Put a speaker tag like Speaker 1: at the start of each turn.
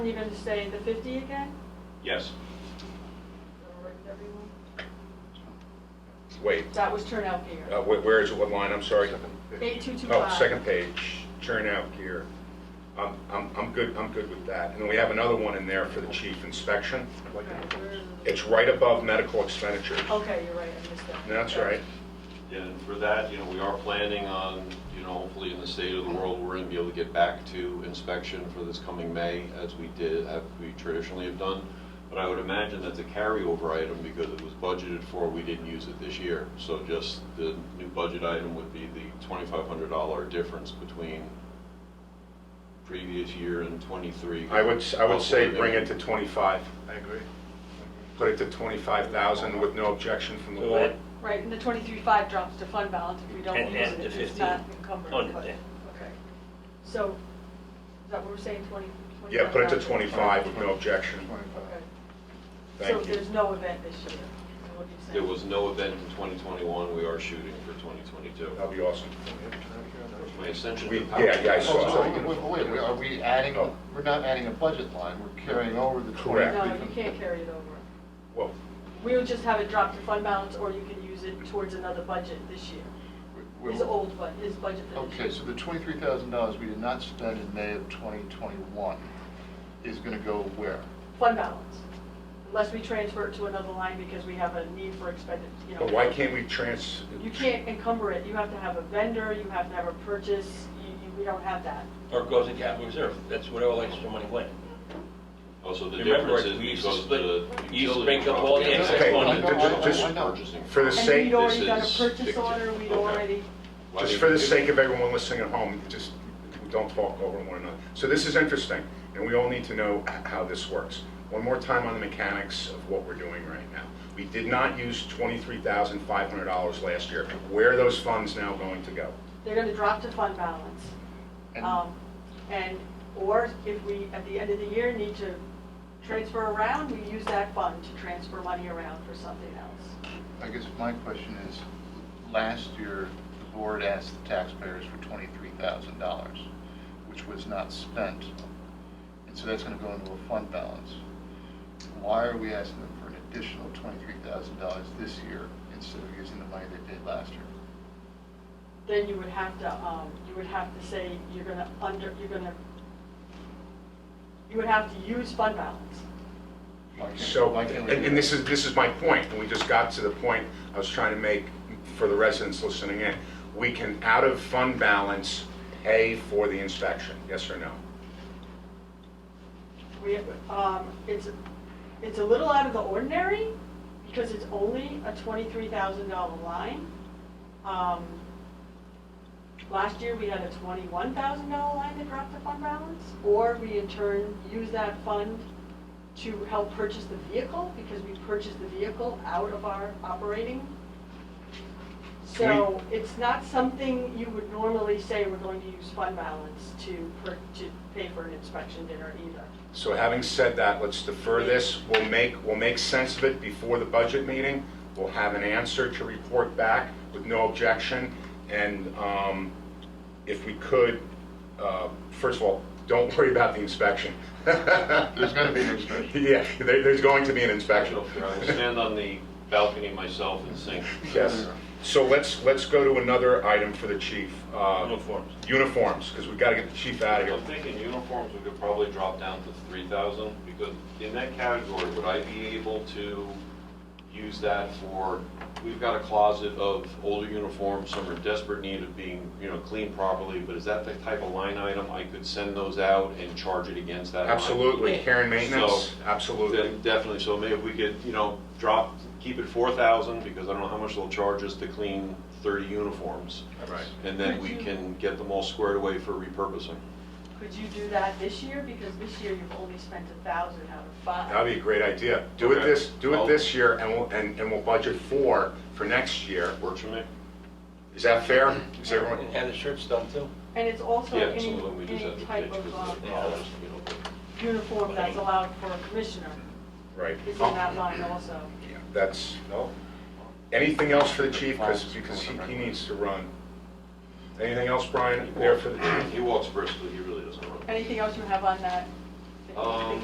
Speaker 1: You're gonna say the 50 again?
Speaker 2: Yes.
Speaker 3: Wait,
Speaker 1: That was turnout gear.
Speaker 3: uh, wh- where is it, what line, I'm sorry? Oh,
Speaker 1: 8225.
Speaker 3: second page, turnout gear. I'm, I'm, I'm good, I'm good with that. And then we have another one in there for the chief inspection.
Speaker 1: Right, where is it?
Speaker 3: It's right above medical expenditures.
Speaker 4: Oh.
Speaker 1: Okay, you're right, I missed that.
Speaker 3: That's right.
Speaker 2: And for that, you know, we are planning on, you know, hopefully in the state of the world, we're gonna be able to get back to inspection for this coming May, as we did, as we traditionally have done. But I would imagine that's a carryover item because it was budgeted for, we didn't use it this year. So just the new budget item would be the twenty-five hundred dollar difference between previous year and twenty-three.
Speaker 3: I would, s- I would say
Speaker 2: Hopefully,
Speaker 3: bring it to 25.
Speaker 4: I agree.
Speaker 3: Put it to 25,000 with no objection from the
Speaker 5: So
Speaker 3: board.
Speaker 1: Right, and the 23.5 drops to fund balance if we don't
Speaker 5: And-
Speaker 1: use it,
Speaker 5: and the
Speaker 1: if it's
Speaker 5: 50.
Speaker 1: not encumbered.
Speaker 5: Oh,
Speaker 1: but-
Speaker 5: yeah.
Speaker 1: Okay. So, is that what we're saying, 20?
Speaker 3: Yeah, put it to 25 with no objection.
Speaker 1: Okay. So
Speaker 3: Thank you.
Speaker 1: there's no event this year, is what you're saying?
Speaker 2: There was no event in twenty twenty-one, we are shooting for twenty twenty-two.
Speaker 3: That'd be awesome.
Speaker 2: My ascension
Speaker 3: We-
Speaker 2: to power.
Speaker 3: yeah, yeah, I saw-
Speaker 4: So,
Speaker 3: saw
Speaker 4: Oh, so
Speaker 3: you.
Speaker 4: wait, wait, wait, are we adding,
Speaker 3: Oh.
Speaker 4: we're not adding a budget line, we're carrying over the
Speaker 3: Correct.
Speaker 1: No,
Speaker 4: twenty-three.
Speaker 1: you can't carry it over.
Speaker 3: Well,
Speaker 1: We would just have it drop to fund balance, or you can use it towards another budget this year.
Speaker 4: We-
Speaker 1: His old budget, his budget for this year.
Speaker 4: Okay, so the twenty-three thousand dollars we did not spend in May of twenty twenty-one is gonna go where?
Speaker 1: fund balance, unless we transfer it to another line because we have a need for expended, you know.
Speaker 3: but why can't we trans?
Speaker 1: You can't encumber it, you have to have a vendor, you have to have a purchase, you, you, we don't have that.
Speaker 5: Or it goes in capital reserve, that's where all extra money went.
Speaker 2: Also, the
Speaker 5: Remember,
Speaker 2: difference is
Speaker 5: we used to
Speaker 2: because
Speaker 5: split-
Speaker 2: the
Speaker 5: you used to
Speaker 2: utility
Speaker 5: break up all the
Speaker 2: company-
Speaker 5: excess
Speaker 3: Okay,
Speaker 5: money.
Speaker 3: I know, I know,
Speaker 2: Just
Speaker 3: I
Speaker 4: know.
Speaker 2: purchasing
Speaker 3: For
Speaker 2: power.
Speaker 3: the
Speaker 1: And
Speaker 3: sake-
Speaker 1: we'd already
Speaker 2: This
Speaker 1: done a
Speaker 2: is
Speaker 1: purchase
Speaker 2: fictive.
Speaker 1: order, we'd
Speaker 2: Okay.
Speaker 1: already,
Speaker 2: Why
Speaker 3: Just
Speaker 2: did
Speaker 3: for the
Speaker 2: you do
Speaker 3: sake
Speaker 2: that?
Speaker 3: of everyone listening at home, just don't talk over one another. So this is interesting, and we all need to know h- how this works. One more time on the mechanics of what we're doing right now. We did not use twenty-three thousand five hundred dollars last year. Where are those funds now going to go?
Speaker 1: they're gonna drop to fund balance.
Speaker 4: And-
Speaker 1: Um, and, or if we, at the end of the year, need to transfer around, we use that fund to transfer money around for something else.
Speaker 4: I guess my question is, last year, the board asked the taxpayers for twenty-three thousand dollars, which was not spent. And so that's gonna go into a fund balance. Why are we asking them for an additional twenty-three thousand dollars this year instead of using the money they did last year?
Speaker 1: Then you would have to, um, you would have to say you're gonna under, you're gonna, you would have to use fund balance.
Speaker 4: Why can't-
Speaker 3: So,
Speaker 4: why can't we
Speaker 3: and
Speaker 4: do
Speaker 3: and
Speaker 4: that?
Speaker 3: this is, this is my point, and we just got to the point I was trying to make for the residents listening in. We can, out of fund balance, pay for the inspection, yes or no?
Speaker 1: We, um, it's, it's a little out of the ordinary, because it's only a twenty-three thousand dollar line. Um, Last year, we had a twenty-one thousand dollar line that dropped the fund balance, or we in turn used that fund to help purchase the vehicle, because we purchased the vehicle out of our operating. So it's not something you would normally say we're going to use fund balance to, per- to pay for an inspection dinner either.
Speaker 3: So having said that, let's defer this. We'll make, we'll make sense of it before the budget meeting. We'll have an answer to report back with no objection. And um, if we could, uh, first of all, don't worry about the inspection. There's
Speaker 4: gonna be an inspection.
Speaker 3: Yeah, there- there's going to be an
Speaker 2: I
Speaker 3: inspection.
Speaker 2: will stand on the balcony myself and sing.
Speaker 3: Yes. So let's, let's go to another item for the chief. uh,
Speaker 5: Uniforms.
Speaker 3: Uniforms, because we've got to get the chief out of
Speaker 2: I'm
Speaker 3: here.
Speaker 2: thinking uniforms, we could probably drop down to three thousand, because in that category, would I be able to use that for, we've got a closet of older uniforms, some are in desperate need of being, you know, cleaned properly, but is that the type of line item I could send those out and charge it against that line?
Speaker 3: Absolutely. Care and maintenance,
Speaker 2: So-
Speaker 3: absolutely.
Speaker 2: Then Definitely, so maybe if we could, you know, drop, keep it four thousand, because I don't know how much they'll charge us to clean thirty uniforms.
Speaker 3: Right.
Speaker 2: And then we can get them all squared away for repurposing.
Speaker 1: Could you do that this year? Because this year you've only spent a thousand out of five.
Speaker 3: That'd be a great idea. Do it
Speaker 2: Okay.
Speaker 3: this, do it
Speaker 2: Well-
Speaker 3: this year, and we'll, and, and we'll budget four for next year.
Speaker 2: Works for me?
Speaker 3: Is that fair?
Speaker 2: Mm-hmm.
Speaker 3: Is everyone,
Speaker 5: And had the shirts done too.
Speaker 1: And it's also
Speaker 2: Yeah,
Speaker 1: any,
Speaker 2: some of them we just have
Speaker 1: any
Speaker 2: to
Speaker 1: type
Speaker 2: ditch
Speaker 1: of
Speaker 2: because
Speaker 1: um,
Speaker 2: of the dollars, you know. but-
Speaker 1: uniform that's allowed for a commissioner
Speaker 3: right?
Speaker 1: is in
Speaker 3: Oh,
Speaker 1: that line also.
Speaker 3: yeah, That's, anything else for the chief, because, because he, he needs to run. Anything else, Brian, there for the chief?
Speaker 2: He walks briskly, he really doesn't run.
Speaker 1: Anything else you have on that that you think
Speaker 2: Um,